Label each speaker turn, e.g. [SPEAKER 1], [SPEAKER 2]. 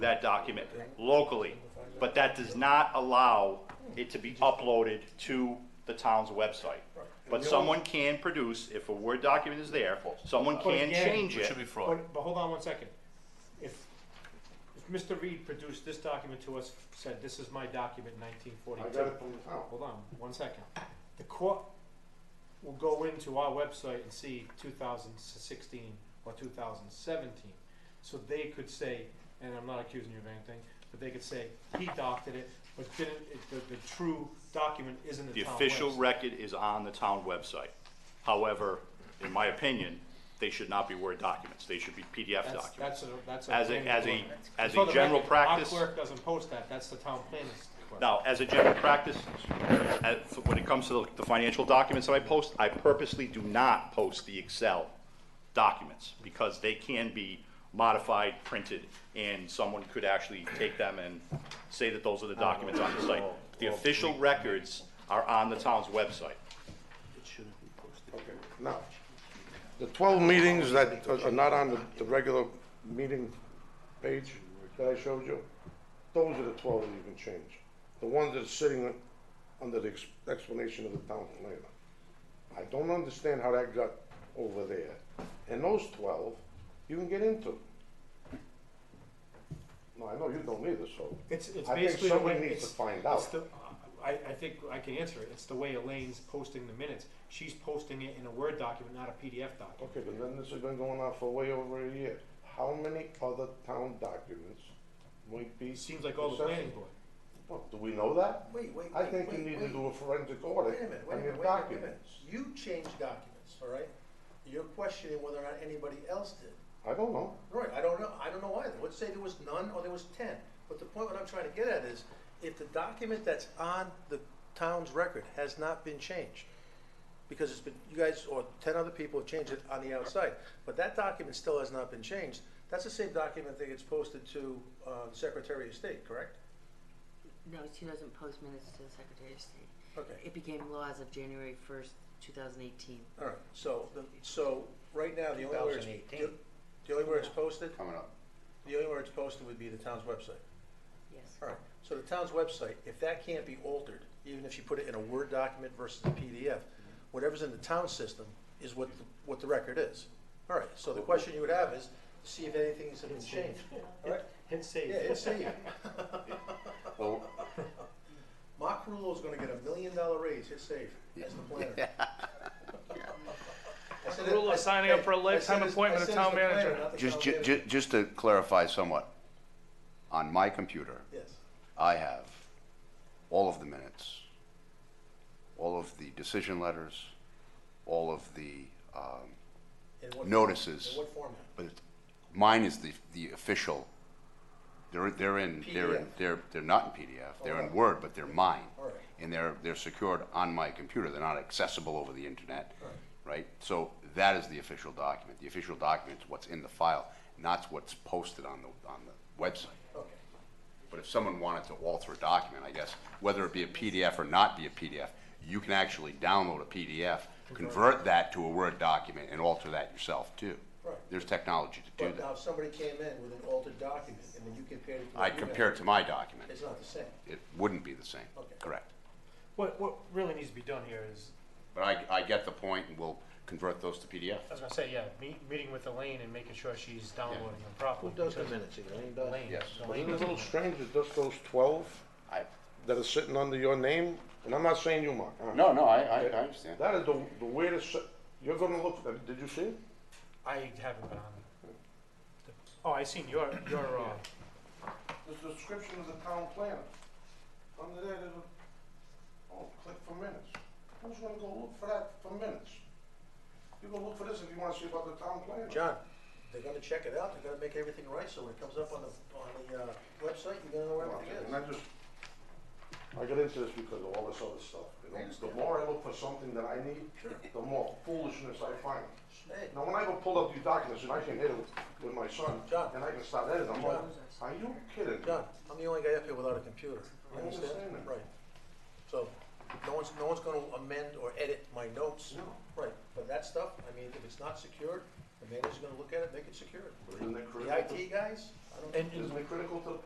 [SPEAKER 1] that document locally, but that does not allow it to be uploaded to the town's website. But someone can produce, if a Word document is there, someone can
[SPEAKER 2] again,
[SPEAKER 1] change
[SPEAKER 3] It
[SPEAKER 1] it.
[SPEAKER 3] should be fraud.
[SPEAKER 2] But, but hold on one second. If, if Mr. Reed produced this document to us, said, this is my document nineteen
[SPEAKER 4] I
[SPEAKER 2] forty-two.
[SPEAKER 4] got it from the town.
[SPEAKER 2] Hold on, one second. The court will go into our website and see two thousand sixteen or two thousand seventeen. So they could say, and I'm not accusing you of anything, but they could say, he doctored it, but didn't, it, the, the true document isn't the
[SPEAKER 1] The
[SPEAKER 2] town
[SPEAKER 1] official
[SPEAKER 2] website.
[SPEAKER 1] record is on the town website. However, in my opinion, they should not be Word documents, they should be PDF
[SPEAKER 2] That's,
[SPEAKER 1] documents.
[SPEAKER 2] that's a, that's a.
[SPEAKER 1] As a,
[SPEAKER 2] planning
[SPEAKER 1] as a,
[SPEAKER 2] board.
[SPEAKER 1] as
[SPEAKER 2] For
[SPEAKER 1] a
[SPEAKER 2] the
[SPEAKER 1] general
[SPEAKER 2] record, our
[SPEAKER 1] practice.
[SPEAKER 2] clerk doesn't post that, that's the town planner's clerk.
[SPEAKER 1] Now, as a general practice, uh, as- when it comes to the financial documents that I post, I purposely do not post the Excel documents because they can be modified, printed, and someone could actually take them and say that those are the documents on the site. The official records are on the town's website.
[SPEAKER 4] Okay, now, the twelve meetings that are- are not on the, the regular meeting page that I showed you, those are the twelve that you can change. The ones that are sitting under the ex- explanation of the town planner. I don't understand how that got over there. And those twelve, you can get into. No, I know you don't either, so.
[SPEAKER 2] It's, it's
[SPEAKER 4] I think
[SPEAKER 2] basically the
[SPEAKER 4] somebody
[SPEAKER 2] way,
[SPEAKER 4] needs
[SPEAKER 2] it's.
[SPEAKER 4] to find
[SPEAKER 2] it's
[SPEAKER 4] out.
[SPEAKER 2] the- I, I think I can answer it, it's the way Elaine's posting the minutes, she's posting it in a Word document, not a PDF document.
[SPEAKER 4] Okay, but then this has been going on for way over a year. How many other town documents might be?
[SPEAKER 2] It seems like all the planning board.
[SPEAKER 4] Well, do we know that?
[SPEAKER 5] Wait, wait,
[SPEAKER 4] I
[SPEAKER 5] wait,
[SPEAKER 4] think you
[SPEAKER 5] wait,
[SPEAKER 4] need to
[SPEAKER 5] wait.
[SPEAKER 4] do a forensic
[SPEAKER 5] Wait a
[SPEAKER 4] audit
[SPEAKER 5] minute, wait a
[SPEAKER 4] on your
[SPEAKER 5] minute, wait a minute, wait a minute.
[SPEAKER 4] documents.
[SPEAKER 5] You changed documents, all right? You're questioning whether or not anybody else did.
[SPEAKER 4] I don't know.
[SPEAKER 5] Right, I don't know, I don't know either. Let's say there was none or there was ten. But the point what I'm trying to get at is, if the document that's on the town's record has not been changed, because it's been, you guys or ten other people have changed it on the outside, but that document still has not been changed, that's the same document that gets posted to, uh, Secretary of State, correct?
[SPEAKER 6] No, she doesn't post minutes to the Secretary of State.
[SPEAKER 5] Okay.
[SPEAKER 6] It became law as of January first, two thousand eighteen.
[SPEAKER 5] All right, so, the- so, right now, the only where it's,
[SPEAKER 7] 2018.
[SPEAKER 5] the only where it's posted,
[SPEAKER 4] Coming up.
[SPEAKER 5] the only where it's posted would be the town's website.
[SPEAKER 6] Yes.
[SPEAKER 5] All right, so the town's website, if that can't be altered, even if you put it in a Word document versus a PDF, whatever's in the town system is what, the- what the record is. All right, so the question you would have is, see if anything's been changed, all right?
[SPEAKER 2] Hit save.
[SPEAKER 5] Yeah, it's saved. Mark Rulo's gonna get a million dollar raise, his save, as the planner. I said it-
[SPEAKER 7] Rulo
[SPEAKER 5] I-
[SPEAKER 7] signing up
[SPEAKER 5] hey,
[SPEAKER 7] for a
[SPEAKER 5] I said
[SPEAKER 7] lifetime
[SPEAKER 5] it's- I
[SPEAKER 7] appointment of
[SPEAKER 5] said it's
[SPEAKER 7] town
[SPEAKER 5] the planner,
[SPEAKER 7] manager.
[SPEAKER 5] not the
[SPEAKER 8] Just,
[SPEAKER 5] town
[SPEAKER 8] ju-
[SPEAKER 5] manager.
[SPEAKER 8] ju- just to clarify somewhat, on my computer,
[SPEAKER 5] Yes.
[SPEAKER 8] I have all of the minutes, all of the decision letters, all of the, um,
[SPEAKER 5] In what form-
[SPEAKER 8] Notices.
[SPEAKER 5] In what format?
[SPEAKER 8] but it's- mine is the, the official. They're, they're in, they're, in-
[SPEAKER 5] PDF.
[SPEAKER 8] they're, they're not in PDF, they're in
[SPEAKER 5] Alright.
[SPEAKER 8] Word, but they're mine.
[SPEAKER 5] Alright.
[SPEAKER 8] And they're, they're secured on my computer, they're not accessible over the internet,
[SPEAKER 5] Alright.
[SPEAKER 8] right? So that is the official document. The official document is what's in the file, not what's posted on the, on the website.
[SPEAKER 5] Okay.
[SPEAKER 8] But if someone wanted to alter a document, I guess, whether it be a PDF or not be a PDF, you can actually download a PDF, convert that to a Word document and alter that yourself too.
[SPEAKER 5] Right.
[SPEAKER 8] There's technology to do
[SPEAKER 5] But now
[SPEAKER 8] that.
[SPEAKER 5] if somebody came in with an altered document and then you compared it to. what
[SPEAKER 8] I'd
[SPEAKER 5] you got,
[SPEAKER 8] compare it to my document.
[SPEAKER 5] uh, It's not the same.
[SPEAKER 8] It wouldn't be the same,
[SPEAKER 5] Okay.
[SPEAKER 8] correct?
[SPEAKER 2] What, what really needs to be done here is,
[SPEAKER 8] But I, I get the point and we'll convert those to PDF.
[SPEAKER 2] I was gonna say, yeah, meet, meeting with Elaine and making sure she's downloading them properly. because
[SPEAKER 7] minutes, Elaine
[SPEAKER 2] Elaine-
[SPEAKER 8] Yes.
[SPEAKER 2] Elaine
[SPEAKER 4] Isn't it a
[SPEAKER 2] doesn't
[SPEAKER 4] little
[SPEAKER 2] know.
[SPEAKER 4] strange that just those twelve
[SPEAKER 8] I,
[SPEAKER 4] that are sitting under your name, and I'm not saying you, Mark. uh,
[SPEAKER 8] no, no, I, I, I understand.
[SPEAKER 4] That is the, the weirdest, se- you're gonna look, at it. did you see it?
[SPEAKER 2] I haven't been on. the- Oh, I seen your, your, uh,
[SPEAKER 4] The description of the town planner. Under there, there's a, oh, click for minutes. Who's gonna go look for that for minutes? You go look for this if you wanna see about the town planner.
[SPEAKER 5] John, they're gonna check it out, they're gonna make everything right, so when it comes up on the, on the, uh, website, you're gonna know where everything
[SPEAKER 4] And I
[SPEAKER 5] is.
[SPEAKER 4] just, I got into this because of all this other stuff. you know? The more I look for something that I need, the more foolishness I find.
[SPEAKER 5] Hey,
[SPEAKER 4] Now, when I go pull up these documents and I can hit it with- with my son,
[SPEAKER 5] John.
[SPEAKER 4] and I can start editing, I'm like, are you kidding? me?
[SPEAKER 5] John, I'm the only guy up here without a computer, you
[SPEAKER 4] I
[SPEAKER 5] understand?
[SPEAKER 4] understand that.
[SPEAKER 5] Right. So, No one's, no one's gonna amend or edit my notes.
[SPEAKER 8] No.
[SPEAKER 5] Right, but that stuff, I mean, if it's not secured, the manager's gonna look at it, make it secured.
[SPEAKER 8] Isn't that
[SPEAKER 5] The IT guys, I don't.
[SPEAKER 2] And,
[SPEAKER 8] it critical to the